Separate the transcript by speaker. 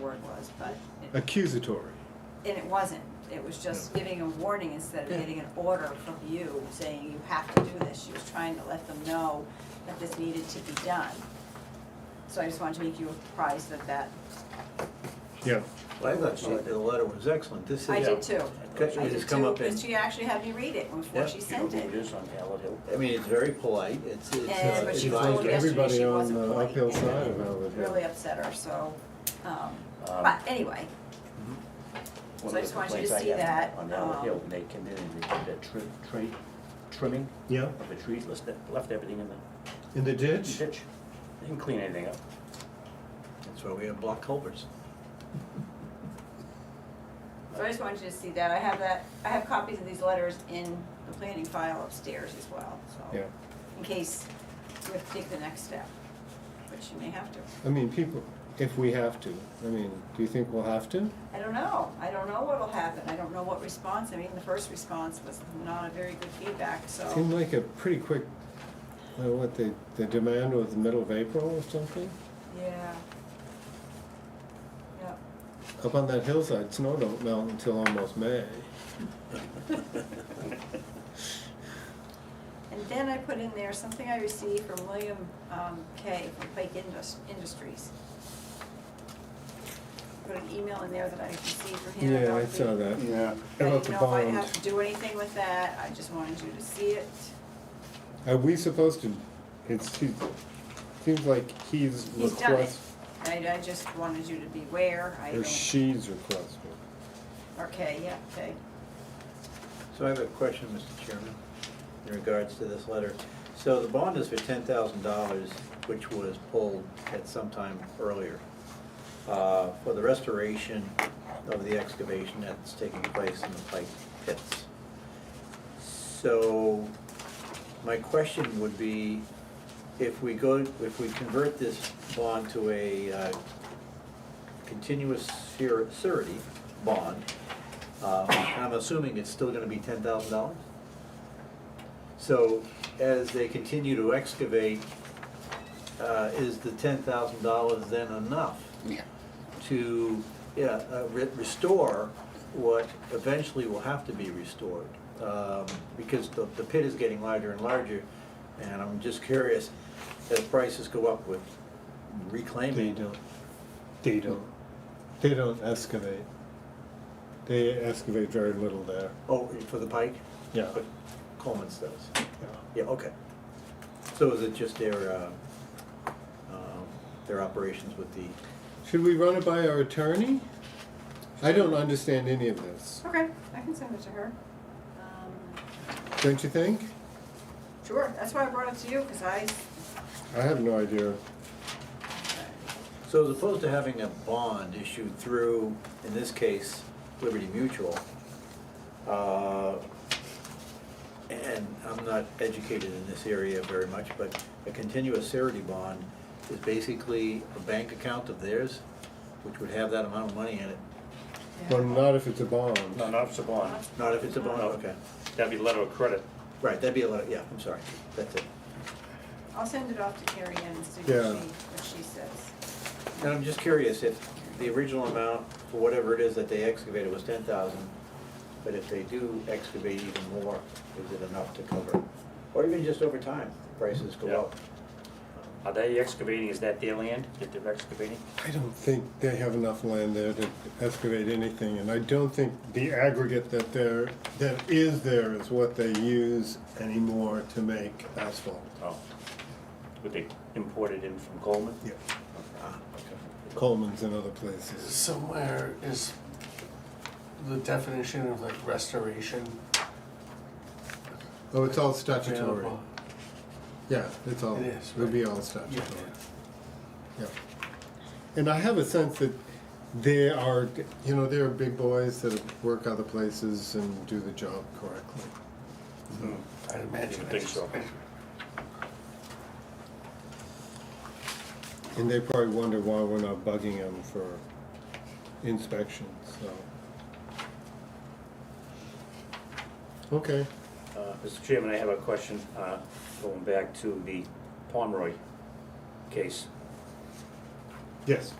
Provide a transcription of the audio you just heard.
Speaker 1: word was, but, it-
Speaker 2: accusatory.
Speaker 1: and it wasn't. It was just giving a warning instead of
Speaker 2: Yeah.
Speaker 1: getting an order from you saying you have to do this. She was trying to let them know that this needed to be done. So I just wanted to make you apprised of that.
Speaker 2: Yeah,
Speaker 3: Well, I thought she, the letter was excellent, this is.
Speaker 1: I did too.
Speaker 3: Okay,
Speaker 1: I
Speaker 3: it
Speaker 1: did
Speaker 3: has come
Speaker 1: too,
Speaker 3: up in-
Speaker 1: because she actually had me read it before
Speaker 3: Yeah,
Speaker 1: she
Speaker 4: You know
Speaker 1: sent
Speaker 4: who it
Speaker 1: it.
Speaker 4: is on Howard Hill.
Speaker 3: I mean, it's very polite, it's,
Speaker 1: And,
Speaker 3: it's. uh,
Speaker 1: but she told
Speaker 3: it's like-
Speaker 2: us-
Speaker 1: yesterday
Speaker 2: Everybody
Speaker 1: she
Speaker 2: on
Speaker 1: wasn't
Speaker 2: the
Speaker 1: polite.
Speaker 2: uphill
Speaker 1: and
Speaker 2: side
Speaker 1: it
Speaker 2: of Howard Hill.
Speaker 1: Really upset her, so, um,
Speaker 4: Um,
Speaker 1: but anyway,
Speaker 3: Mhm.
Speaker 4: One
Speaker 1: So I
Speaker 4: of the
Speaker 1: just want you to
Speaker 4: complaints I
Speaker 1: see
Speaker 4: had
Speaker 1: that,
Speaker 4: On Howard
Speaker 1: um,
Speaker 4: Hill, when they came in and they did that trim, tree, trimming
Speaker 2: yeah,
Speaker 4: of the trees, left, left everything in the
Speaker 2: in the ditch?
Speaker 4: ditch. They didn't clean anything up.
Speaker 3: That's why we have block culverts.
Speaker 1: so I just wanted you to see that, I have that, I have copies of these letters in the planning file upstairs as well, so.
Speaker 2: Yeah,
Speaker 1: In case you have to take the next step, which you may have to,
Speaker 2: I mean, people, if we have to, I mean, do you think we'll have to?
Speaker 1: I don't know, I don't know what'll happen, I don't know what response, I mean, the first response was not a very good feedback, so.
Speaker 2: Seemed like a pretty quick, uh, what, the, the demand was the middle of April or something?
Speaker 1: Yeah. Yep.
Speaker 2: Up on that hillside, snow don't melt until almost May.
Speaker 1: And then I put in there something I received from William um, Kay from Pike Indus- Industries. Put an email in there that I received from him
Speaker 2: Yeah,
Speaker 1: about
Speaker 2: I saw
Speaker 1: the-
Speaker 2: that.
Speaker 5: Yeah,
Speaker 1: I
Speaker 2: About
Speaker 1: didn't
Speaker 2: the
Speaker 1: know if I'd
Speaker 2: bond.
Speaker 1: have to do anything with that, I just wanted you to see it.
Speaker 2: Are we supposed to, it's, he, seems like he's
Speaker 1: He's done it.
Speaker 2: request,
Speaker 1: I, I just wanted you to be aware, I
Speaker 2: or
Speaker 1: don't,
Speaker 2: she's requesting.
Speaker 1: or Kay, yeah, Kay.
Speaker 3: So I have a question, Mr. Chairman, in regards to this letter. So the bond is for ten thousand dollars, which was pulled at some time earlier, uh, for the restoration of the excavation that's taking place in the Pike pits. So my question would be, if we go, if we convert this bond to a uh, continuous sur- surety bond, um, and I'm assuming it's still gonna be ten thousand dollars? So, as they continue to excavate, uh, is the ten thousand dollars then enough? To, yeah, uh, re- restore what eventually will have to be restored? Um, because the, the pit is getting larger and larger, and I'm just curious, as prices go up with
Speaker 2: They
Speaker 3: reclaiming.
Speaker 2: don't, they don't, they don't excavate. They excavate very little there,
Speaker 3: Oh, for the pike?
Speaker 2: yeah.
Speaker 3: But Coleman's does.
Speaker 2: yeah.
Speaker 3: Yeah, okay. So is it just their, uh, um, their operations with the,
Speaker 2: Should we run it by our attorney? I don't understand any of this,
Speaker 1: Okay, I can send it to her. Um,
Speaker 2: don't you think?
Speaker 1: Sure, that's why I brought it to you, because I,
Speaker 2: I have no idea.
Speaker 3: so as opposed to having a bond issued through, in this case, Liberty Mutual, uh, and I'm not educated in this area very much, but a continuous surety bond is basically a bank account of theirs, which would have that amount of money in it.
Speaker 2: Well, not if it's a bond.
Speaker 5: no, not if it's a bond.
Speaker 3: Not if it's a bond,
Speaker 5: No.
Speaker 3: Oh, okay.
Speaker 5: That'd be letter of credit.
Speaker 3: Right, that'd be a lot, yeah, I'm sorry, that's it.
Speaker 1: I'll send it off to Carrie Ann and see what
Speaker 2: Yeah.
Speaker 1: she, what she says.
Speaker 3: And I'm just curious, if the original amount, for whatever it is that they excavated was ten thousand, but if they do excavate even more, is it enough to cover? Or even just over time, prices
Speaker 5: Yeah.
Speaker 3: go up?
Speaker 4: Are they excavating, is that their land that they're excavating?
Speaker 2: I don't think they have enough land there to excavate anything, and I don't think the aggregate that there, that is there is what they use anymore to make asphalt.
Speaker 4: Oh. Would they import it in from Coleman?
Speaker 2: Yeah,
Speaker 3: Ah, okay.
Speaker 2: Coleman's and other places.
Speaker 6: Somewhere is the definition of like restoration.
Speaker 2: Oh, it's all statutory.
Speaker 6: available.
Speaker 2: Yeah, it's all,
Speaker 6: It is,
Speaker 2: it would be all statutory.
Speaker 6: Yeah.
Speaker 2: Yeah. And I have a sense that they are, you know, there are big boys that work other places and do the job correctly.
Speaker 6: I'd imagine.
Speaker 5: I think so.
Speaker 2: And they probably wonder why we're not bugging them for inspections, so. Okay,
Speaker 4: Uh, Mr. Chairman, I have a question, uh, going back to the Pomeroy case.
Speaker 2: yes.